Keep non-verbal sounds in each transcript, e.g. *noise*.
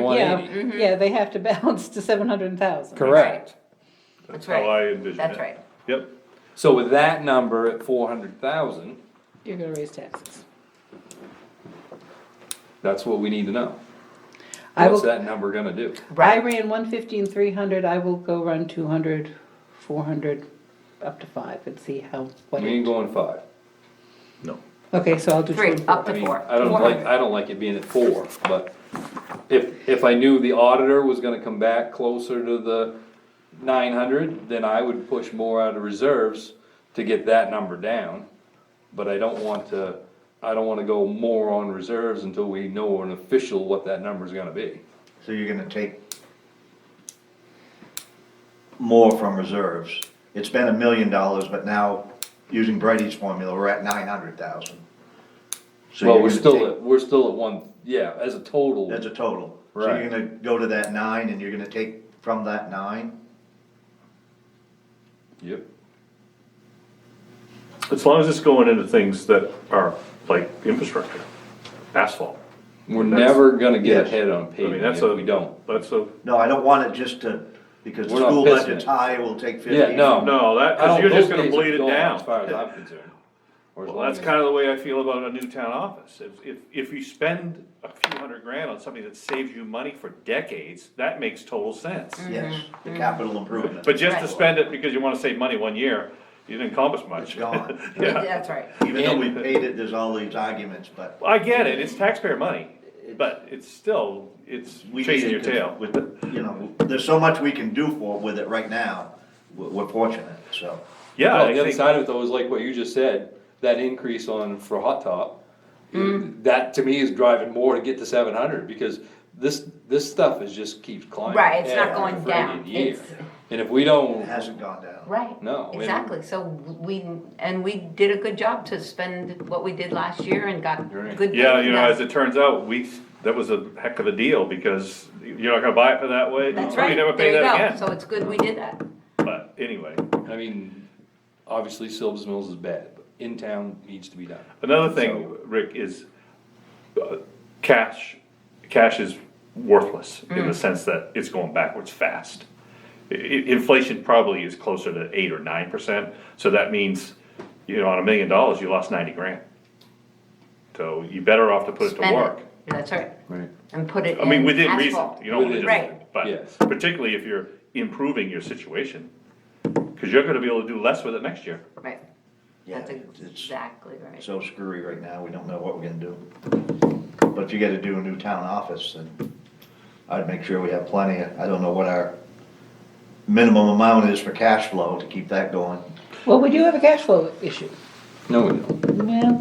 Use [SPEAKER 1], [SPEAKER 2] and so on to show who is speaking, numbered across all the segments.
[SPEAKER 1] one
[SPEAKER 2] yeah, Mm-hmm.
[SPEAKER 1] eighty.
[SPEAKER 3] Mm-hmm.
[SPEAKER 2] Yeah, they have to *laughs* balance to seven hundred thousand.
[SPEAKER 1] Correct.
[SPEAKER 4] That's
[SPEAKER 3] That's
[SPEAKER 4] how I
[SPEAKER 3] right,
[SPEAKER 4] envision it.
[SPEAKER 3] that's right.
[SPEAKER 4] Yep,
[SPEAKER 1] So with that number at four hundred thousand,
[SPEAKER 2] You're gonna raise taxes.
[SPEAKER 1] that's what we need to know.
[SPEAKER 2] I
[SPEAKER 1] What's
[SPEAKER 2] will,
[SPEAKER 1] that number gonna do?
[SPEAKER 2] I ran one fifteen, three hundred, I will go run two hundred, four hundred, up to five and see how, what
[SPEAKER 1] We ain't
[SPEAKER 2] it,
[SPEAKER 1] going five.
[SPEAKER 4] no.
[SPEAKER 2] okay, so I'll do two
[SPEAKER 3] Three,
[SPEAKER 2] and four.
[SPEAKER 3] up
[SPEAKER 1] I
[SPEAKER 3] to
[SPEAKER 1] mean,
[SPEAKER 3] four.
[SPEAKER 1] I don't like, I don't like it being at four, but if, if I knew the auditor was gonna come back closer to the nine hundred, then I would push more out of reserves to get that number down. But I don't want to, I don't wanna go more on reserves until we know an official what that number's gonna be.
[SPEAKER 5] So you're gonna take more from reserves. It's been a million dollars, but now, using Brady's formula, we're at nine hundred thousand.
[SPEAKER 1] Well, we're still at, we're still at one, yeah, as a total,
[SPEAKER 5] That's a total. So
[SPEAKER 1] Right.
[SPEAKER 5] you're gonna go to that nine and you're gonna take from that nine?
[SPEAKER 1] yep,
[SPEAKER 4] As long as it's going into things that are like infrastructure, asphalt.
[SPEAKER 1] we're
[SPEAKER 4] That's-
[SPEAKER 1] never gonna get
[SPEAKER 5] Yes.
[SPEAKER 1] ahead on
[SPEAKER 4] I mean,
[SPEAKER 1] paving
[SPEAKER 4] that's
[SPEAKER 1] if
[SPEAKER 4] a.
[SPEAKER 1] we don't.
[SPEAKER 4] That's a,
[SPEAKER 5] No, I don't want it just to, because the
[SPEAKER 1] We're not
[SPEAKER 5] school
[SPEAKER 1] pissing
[SPEAKER 5] budget's
[SPEAKER 1] it.
[SPEAKER 5] high, we'll take
[SPEAKER 1] Yeah,
[SPEAKER 5] fifteen.
[SPEAKER 1] no.
[SPEAKER 4] no, that,
[SPEAKER 1] I
[SPEAKER 4] cause
[SPEAKER 1] don't-
[SPEAKER 4] you're just
[SPEAKER 1] those
[SPEAKER 4] gonna
[SPEAKER 1] days are
[SPEAKER 4] bleed it
[SPEAKER 1] gone
[SPEAKER 4] down.
[SPEAKER 1] As far as I'm concerned. Or as
[SPEAKER 4] Well,
[SPEAKER 1] long
[SPEAKER 4] that's
[SPEAKER 1] as-
[SPEAKER 4] kinda the way I feel about a new town office. If, if, if you spend a few hundred grand on something that saves you money for decades, that makes total sense.
[SPEAKER 5] Yes, the capital improvement.
[SPEAKER 4] But just to
[SPEAKER 3] Mm. Right.
[SPEAKER 4] spend it because you wanna save money one year, you didn't accomplish much.
[SPEAKER 1] *laughs*
[SPEAKER 5] It's gone.
[SPEAKER 4] Yeah,
[SPEAKER 3] *laughs* That's right.
[SPEAKER 5] Even though we paid it, there's all these arguments, but.
[SPEAKER 4] I get it, it's taxpayer money, but it's still, it's
[SPEAKER 5] we
[SPEAKER 4] chasing your
[SPEAKER 5] needed to-
[SPEAKER 4] tail.
[SPEAKER 5] With, the- you know, there's so much we can do for, with it right now, we're, we're fortunate, so.
[SPEAKER 4] Yeah,
[SPEAKER 1] Well,
[SPEAKER 4] I
[SPEAKER 1] the other
[SPEAKER 4] think,
[SPEAKER 1] side of it though is like what you just said, that increase on for hot top.
[SPEAKER 3] Mm.
[SPEAKER 1] That to me is driving more to get to seven hundred because this, this stuff is just keeps climbing.
[SPEAKER 3] Right, it's not
[SPEAKER 1] every
[SPEAKER 3] going
[SPEAKER 1] friggin'
[SPEAKER 3] down.
[SPEAKER 1] year.
[SPEAKER 3] It's-
[SPEAKER 1] And if we don't,
[SPEAKER 5] It hasn't gone down.
[SPEAKER 3] Right.
[SPEAKER 1] No, we-
[SPEAKER 3] Exactly, so we, and we did a good job to spend what we did last year and got
[SPEAKER 1] Right.
[SPEAKER 3] good.
[SPEAKER 4] yeah, you know, as
[SPEAKER 3] things.
[SPEAKER 4] it turns out, we, that was a heck of a deal because you're not gonna buy it for that way.
[SPEAKER 3] That's
[SPEAKER 4] so
[SPEAKER 3] right,
[SPEAKER 4] You never pay
[SPEAKER 3] there
[SPEAKER 4] that
[SPEAKER 3] you go, so
[SPEAKER 4] again.
[SPEAKER 3] it's good we did that.
[SPEAKER 4] But anyway,
[SPEAKER 1] I mean, obviously Silva's Mills is bad, but in town needs to be done.
[SPEAKER 4] another thing,
[SPEAKER 1] So-
[SPEAKER 4] Rick, is uh, cash, cash is worthless in the
[SPEAKER 3] Mm.
[SPEAKER 4] sense that it's going backwards fast. I- i- inflation probably is closer to eight or nine percent, so that means, you know, on a million dollars, you lost ninety grand. So you better off to put it to
[SPEAKER 3] Spend it.
[SPEAKER 4] work.
[SPEAKER 3] That's right,
[SPEAKER 1] Right.
[SPEAKER 3] and put it
[SPEAKER 4] I mean,
[SPEAKER 3] in
[SPEAKER 4] within reason,
[SPEAKER 3] asphalt.
[SPEAKER 4] you don't wanna
[SPEAKER 3] Right.
[SPEAKER 4] just,
[SPEAKER 1] Yes.
[SPEAKER 4] but particularly if you're improving your situation. Cause you're gonna be able to do less with it next year.
[SPEAKER 3] Right,
[SPEAKER 5] Yeah,
[SPEAKER 3] that's
[SPEAKER 5] it's
[SPEAKER 3] exactly right,
[SPEAKER 5] so screwy right now, we don't know what we're gonna do. But if you gotta do a new town office, then I'd make sure we have plenty, of- I don't know what our minimum amount is for cash flow to keep that going.
[SPEAKER 2] Well, we do have a cash flow issue,
[SPEAKER 1] No, we don't.
[SPEAKER 2] yeah,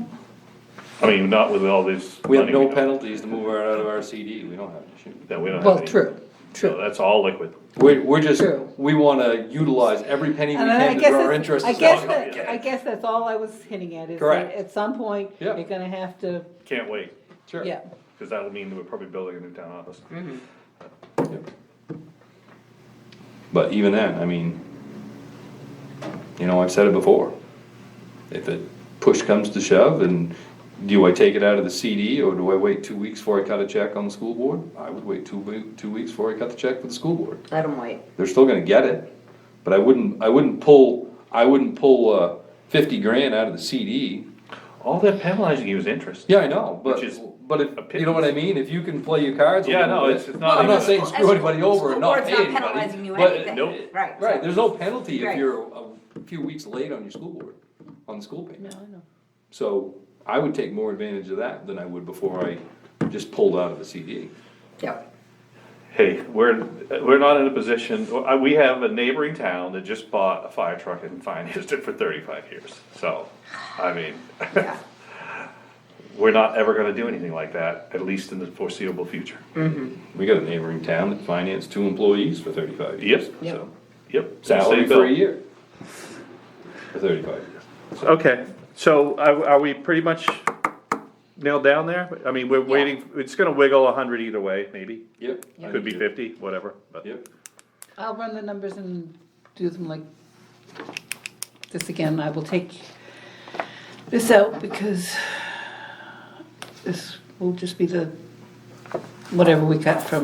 [SPEAKER 4] I mean, not with all this.
[SPEAKER 1] We have
[SPEAKER 4] money
[SPEAKER 1] no
[SPEAKER 4] don't-
[SPEAKER 1] penalties to move out of our CD. We don't have to shoot.
[SPEAKER 4] That we don't have.
[SPEAKER 2] well,
[SPEAKER 4] any.
[SPEAKER 2] true,
[SPEAKER 4] So
[SPEAKER 2] true.
[SPEAKER 4] that's all liquid.
[SPEAKER 1] We're, we're just,
[SPEAKER 2] True.
[SPEAKER 1] we wanna utilize every penny we
[SPEAKER 2] And I
[SPEAKER 1] can to
[SPEAKER 2] guess
[SPEAKER 1] grow our
[SPEAKER 2] that's,
[SPEAKER 1] interest.
[SPEAKER 2] I
[SPEAKER 1] in
[SPEAKER 2] guess
[SPEAKER 1] Silva's Mills.
[SPEAKER 2] that, I guess that's all I was hinting at, is that
[SPEAKER 1] Correct.
[SPEAKER 2] at some point,
[SPEAKER 1] Yeah.
[SPEAKER 2] you're gonna have to,
[SPEAKER 4] Can't wait,
[SPEAKER 1] Sure.
[SPEAKER 2] yeah.
[SPEAKER 4] because that'll mean that we're probably building a new town office.
[SPEAKER 1] Mm-hmm. Yep. But even then, I mean, you know, I've said it before. If it push comes to shove and do I take it out of the CD or do I wait two weeks before I cut a check on the school board? I would wait two, wee- two weeks before I cut the check for the school board.
[SPEAKER 3] let them wait,
[SPEAKER 1] They're still gonna get it, but I wouldn't, I wouldn't pull, I wouldn't pull, uh, fifty grand out of the CD.
[SPEAKER 4] All that penalizing you is interest.
[SPEAKER 1] Yeah, I know, but,
[SPEAKER 4] Which is
[SPEAKER 1] but if, you know what I mean? If you can play your cards a
[SPEAKER 4] Yeah,
[SPEAKER 1] little
[SPEAKER 4] no,
[SPEAKER 1] bit-
[SPEAKER 4] it's- it's not
[SPEAKER 1] I'm
[SPEAKER 4] even-
[SPEAKER 1] not saying
[SPEAKER 3] Well,
[SPEAKER 1] screw
[SPEAKER 3] as-
[SPEAKER 1] anybody over and
[SPEAKER 3] school
[SPEAKER 1] not
[SPEAKER 3] board's
[SPEAKER 1] pay
[SPEAKER 3] not
[SPEAKER 1] anybody.
[SPEAKER 3] penalizing you
[SPEAKER 1] but-
[SPEAKER 4] uh,
[SPEAKER 3] anything.
[SPEAKER 1] nope.
[SPEAKER 3] Right,
[SPEAKER 1] Right,
[SPEAKER 3] so-
[SPEAKER 1] there's no penalty if
[SPEAKER 3] Right.
[SPEAKER 1] you're a few weeks late on your school board, on the school
[SPEAKER 2] No,
[SPEAKER 1] payment.
[SPEAKER 2] I know.
[SPEAKER 1] So I would take more advantage of that than I would before I just pulled out of a CD.
[SPEAKER 3] yep,
[SPEAKER 4] Hey, we're, we're not in a position, uh, we have a neighboring town that just bought a fire truck and financed it for thirty-five years. So, I mean,
[SPEAKER 3] yeah,
[SPEAKER 4] *laughs* we're not ever gonna do anything like that, at least in the foreseeable future.
[SPEAKER 1] We got a neighboring town that financed two employees for thirty-five years.
[SPEAKER 4] Yep,
[SPEAKER 2] Yep.
[SPEAKER 1] So
[SPEAKER 4] yep.
[SPEAKER 1] Salary
[SPEAKER 4] Same
[SPEAKER 1] for a
[SPEAKER 4] bill.
[SPEAKER 1] year. For thirty-five years.
[SPEAKER 4] Okay, so are, are we pretty much nailed down there? I mean, we're waiting, it's gonna wiggle a hundred either way, maybe,
[SPEAKER 1] Yep. I
[SPEAKER 4] could be
[SPEAKER 1] do.
[SPEAKER 4] fifty, whatever, but.
[SPEAKER 1] Yep.
[SPEAKER 2] I'll run the numbers and do them like this again. I will take this out because this will just be the, whatever we cut from